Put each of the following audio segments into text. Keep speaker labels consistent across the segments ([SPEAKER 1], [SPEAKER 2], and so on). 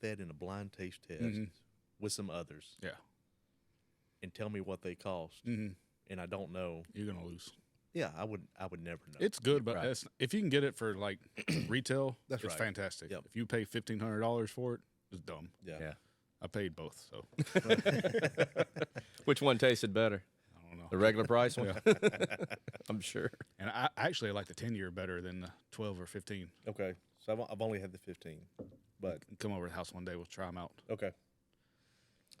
[SPEAKER 1] that in a blind taste test
[SPEAKER 2] Mm-hmm.
[SPEAKER 3] Mhm.
[SPEAKER 1] with some others
[SPEAKER 3] Yeah.
[SPEAKER 1] and tell me what they cost,
[SPEAKER 2] Mm-hmm.
[SPEAKER 3] hmm
[SPEAKER 1] and I don't know.
[SPEAKER 3] You're gonna lose.
[SPEAKER 1] Yeah, I would. I would never know.
[SPEAKER 3] It's good, but
[SPEAKER 2] Right.
[SPEAKER 3] that's, if you can get it for like retail,
[SPEAKER 1] That's
[SPEAKER 3] it's
[SPEAKER 1] right.
[SPEAKER 3] fantastic.
[SPEAKER 1] Yep.
[SPEAKER 3] If you pay fifteen hundred dollars for it, it's dumb.
[SPEAKER 1] yeah.
[SPEAKER 2] Yeah.
[SPEAKER 3] I paid both, so
[SPEAKER 2] Which one tasted better?
[SPEAKER 3] I don't
[SPEAKER 2] The
[SPEAKER 3] know.
[SPEAKER 2] regular price one? I'm sure.
[SPEAKER 3] And I I actually like the ten year better than the twelve or fifteen.
[SPEAKER 1] Okay. So I've, I've only had the fifteen, but
[SPEAKER 3] Come over to the house one day, we'll try them out.
[SPEAKER 1] okay.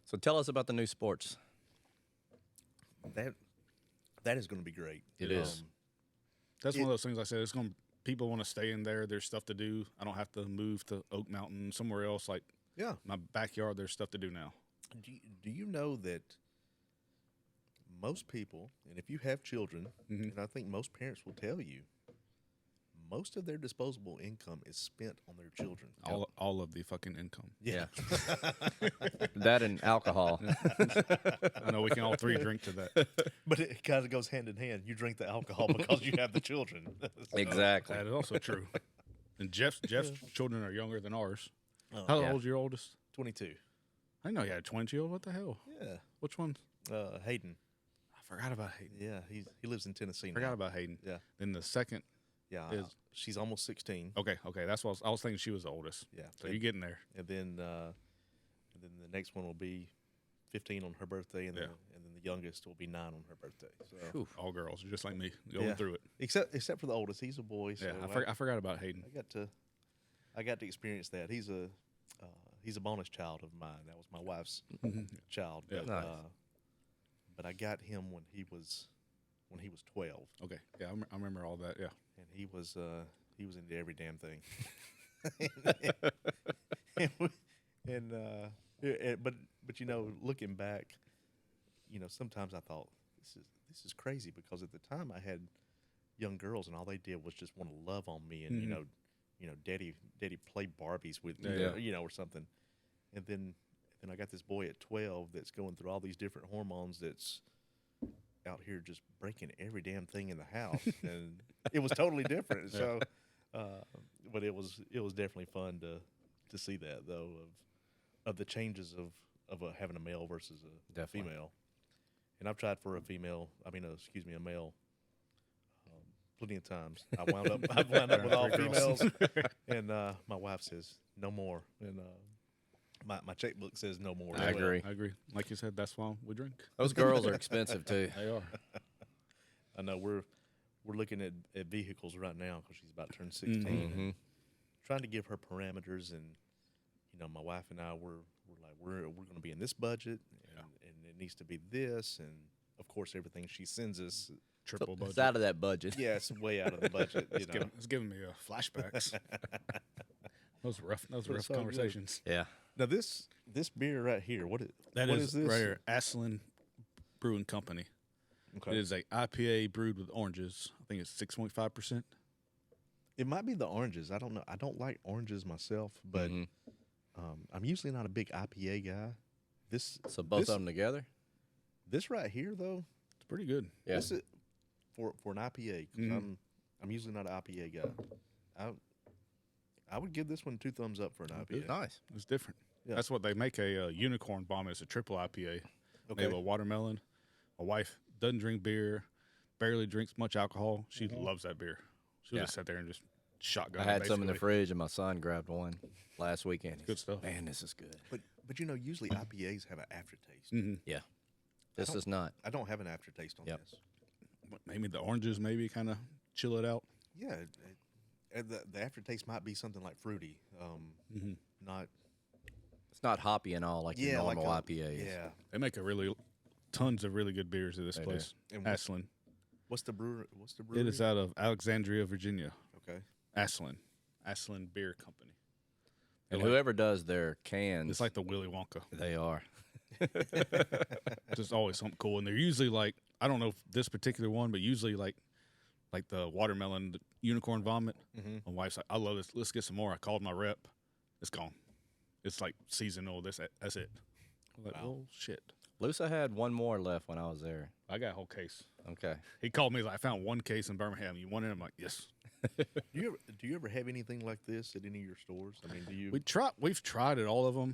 [SPEAKER 2] So tell us about the new sports.
[SPEAKER 1] That that is going to be great. Um,
[SPEAKER 2] It is.
[SPEAKER 3] That's
[SPEAKER 1] It-
[SPEAKER 3] one of those things I said. It's going to people want to stay in there. There's stuff to do. I don't have to move to Oak Mountain somewhere else. Like
[SPEAKER 1] Yeah.
[SPEAKER 3] my backyard, there's stuff to do now.
[SPEAKER 1] Do you, do you know that most people, and if you have children,
[SPEAKER 2] Mm-hmm.
[SPEAKER 3] Mhm.
[SPEAKER 1] and I think most parents will tell you, most of their disposable income is spent on their children.
[SPEAKER 3] All all of the fucking income.
[SPEAKER 2] Yeah. that and alcohol.
[SPEAKER 3] I know we can all three drink to that.
[SPEAKER 1] But it kind of goes hand in hand. You drink the alcohol because you have the children. So-
[SPEAKER 2] exactly.
[SPEAKER 3] That is also true. And Jeff's Jeff's children are younger than ours.
[SPEAKER 1] uh,
[SPEAKER 3] How
[SPEAKER 2] Yeah.
[SPEAKER 3] old's your oldest?
[SPEAKER 1] 22.
[SPEAKER 3] I didn't know you had a twin child. What the hell?
[SPEAKER 1] Yeah.
[SPEAKER 3] Which one?
[SPEAKER 1] Uh, Hayden.
[SPEAKER 3] I forgot about Hayden.
[SPEAKER 1] Yeah. He's, he lives in Tennessee now.
[SPEAKER 3] Forgot about Hayden.
[SPEAKER 1] Yeah.
[SPEAKER 3] Then the second.
[SPEAKER 1] Yeah.
[SPEAKER 3] Is-
[SPEAKER 1] she's almost 16.
[SPEAKER 3] Okay. Okay. That's what I was, I was thinking. She was the oldest.
[SPEAKER 1] Yeah.
[SPEAKER 3] Oh, So you're getting there.
[SPEAKER 1] and then uh, and then the next one will be 15 on her birthday, and then and then the youngest will be nine on her birthday. So
[SPEAKER 3] All girls, just like me, going
[SPEAKER 1] Yeah.
[SPEAKER 3] through it.
[SPEAKER 1] except except for the oldest, he's a boy. So
[SPEAKER 3] Yeah. I,
[SPEAKER 1] I,
[SPEAKER 3] for, I forgot about Hayden.
[SPEAKER 1] I got to I got to experience that. He's a uh, he's a bonus child of mine. That was my wife's child.
[SPEAKER 3] Yeah.
[SPEAKER 1] But,
[SPEAKER 2] Nice.
[SPEAKER 1] uh, but I got him when he was when he was 12,
[SPEAKER 3] Okay. Yeah. I, rem- I remember all that. Yeah.
[SPEAKER 1] and he was uh, he was into every damn thing. and we- and, uh, yeah, and- but but you know, looking back, you know, sometimes I thought this is this is crazy because at the time I had young girls and all they did was just want to love on me and you
[SPEAKER 3] Mhm.
[SPEAKER 1] know, you know, daddy daddy play Barbies with me,
[SPEAKER 3] Yeah.
[SPEAKER 1] you know, or something. And then then I got this boy at twelve that's going through all these different hormones that's out here just breaking every damn thing in the house and it was totally different. So uh, but it was it was definitely fun to to see that though of of the changes of of uh having a male versus a
[SPEAKER 2] Definitely.
[SPEAKER 1] female. And I've tried for a female, I mean, uh, excuse me, a male, um, plenty of times. I wound up I wound up with all
[SPEAKER 3] Three girls.
[SPEAKER 1] females, and uh, my wife says no more, and uh, my my checkbook says no more. as
[SPEAKER 2] I
[SPEAKER 1] well.
[SPEAKER 2] agree.
[SPEAKER 3] I agree. Like you said, that's why we drink.
[SPEAKER 2] Those girls are expensive too.
[SPEAKER 3] They are.
[SPEAKER 1] I know we're we're looking at, at vehicles right now because she's about to turn 16
[SPEAKER 3] Mm-hmm.
[SPEAKER 1] and
[SPEAKER 2] Mhm.
[SPEAKER 1] trying to give her parameters and you know my wife and I were we're like we're we're going to be in this budget
[SPEAKER 3] Yeah.
[SPEAKER 1] and, and it needs to be this and of course everything she sends us
[SPEAKER 2] Mm-hmm. So
[SPEAKER 3] Triple
[SPEAKER 2] it's
[SPEAKER 3] budget.
[SPEAKER 2] out of that budget.
[SPEAKER 1] yeah it's way out of the budget you
[SPEAKER 3] It's
[SPEAKER 1] know
[SPEAKER 3] giving, it's giving me uh, flashbacks. those rough, those
[SPEAKER 1] But
[SPEAKER 3] rough
[SPEAKER 1] it's all good.
[SPEAKER 3] conversations.
[SPEAKER 2] Yeah.
[SPEAKER 1] now this this beer right here what is
[SPEAKER 3] That
[SPEAKER 1] what
[SPEAKER 3] is
[SPEAKER 1] this
[SPEAKER 3] right here, Aslan Brewing Company.
[SPEAKER 1] Okay.
[SPEAKER 3] It is a IPA brewed with oranges. I think it's six point five percent.
[SPEAKER 1] it might be the oranges I don't know I don't like oranges myself but
[SPEAKER 2] Mhm.
[SPEAKER 1] um, I'm usually not a big IPA guy this
[SPEAKER 2] So both
[SPEAKER 1] this,
[SPEAKER 2] of them together?
[SPEAKER 1] this right here though
[SPEAKER 3] It's pretty good.
[SPEAKER 2] Yeah.
[SPEAKER 1] This is for for an IPA. 'cause
[SPEAKER 3] Mhm.
[SPEAKER 1] I'm I'm usually not an IPA guy. I I would give this one two thumbs up for an IPA.
[SPEAKER 2] Nice.
[SPEAKER 3] It's different.
[SPEAKER 1] Yeah.
[SPEAKER 3] That's what they make a uh, unicorn bomb. It's a triple IPA. They have
[SPEAKER 1] Okay.
[SPEAKER 3] a watermelon. My wife doesn't drink beer, barely drinks much alcohol. She loves that beer. She'll
[SPEAKER 2] Mm-hmm. Yeah.
[SPEAKER 3] just sit there and just shotgun.
[SPEAKER 2] I
[SPEAKER 3] it,
[SPEAKER 2] had some in the
[SPEAKER 3] basically.
[SPEAKER 2] fridge and my son grabbed one last weekend. He's
[SPEAKER 3] Good stuff.
[SPEAKER 2] Man, this is good.
[SPEAKER 1] But but you know usually IPAs have an aftertaste.
[SPEAKER 3] Mm-hmm.
[SPEAKER 2] Yeah. This
[SPEAKER 1] don't-
[SPEAKER 2] is not.
[SPEAKER 1] I don't have an aftertaste on
[SPEAKER 2] Yep.
[SPEAKER 1] this.
[SPEAKER 3] maybe the oranges maybe kind of chill it out.
[SPEAKER 1] Yeah, it- it- and the, the aftertaste might be something like fruity, um,
[SPEAKER 3] Mm-hmm.
[SPEAKER 1] not
[SPEAKER 2] It's not hoppy and all like
[SPEAKER 1] yeah
[SPEAKER 2] your
[SPEAKER 1] like
[SPEAKER 2] normal
[SPEAKER 1] a-
[SPEAKER 2] IPA is.
[SPEAKER 1] Yeah,
[SPEAKER 3] They make a really tons of really good beers at this
[SPEAKER 2] They do.
[SPEAKER 3] place.
[SPEAKER 1] And what's-
[SPEAKER 3] Aslan.
[SPEAKER 1] what's the brewer? What's the brewery?
[SPEAKER 3] It is out of Alexandria, Virginia.
[SPEAKER 1] okay.
[SPEAKER 3] Aslan. Aslan Beer Company. They're
[SPEAKER 2] And
[SPEAKER 3] like-
[SPEAKER 2] whoever does their cans,
[SPEAKER 3] it's like the Willy Wonka.
[SPEAKER 2] they are.
[SPEAKER 3] Just always something cool. And they're usually like I don't know if this particular one, but usually like like the watermelon the unicorn vomit. My wife's like, I love this. Let's get some more. I called my rep. It's gone. It's like seasonal. This that's it. I'm like,
[SPEAKER 1] Wow.
[SPEAKER 3] well, shit.
[SPEAKER 2] Lusa had one more left when I was there.
[SPEAKER 3] I got a whole case.
[SPEAKER 2] Okay.
[SPEAKER 3] He called me. He's like, I found one case in Birmingham. You want it? I'm like, yes.
[SPEAKER 1] Do you ever do you ever have anything like this at any of your stores? I mean, do you?
[SPEAKER 3] We try. We've tried at all of them.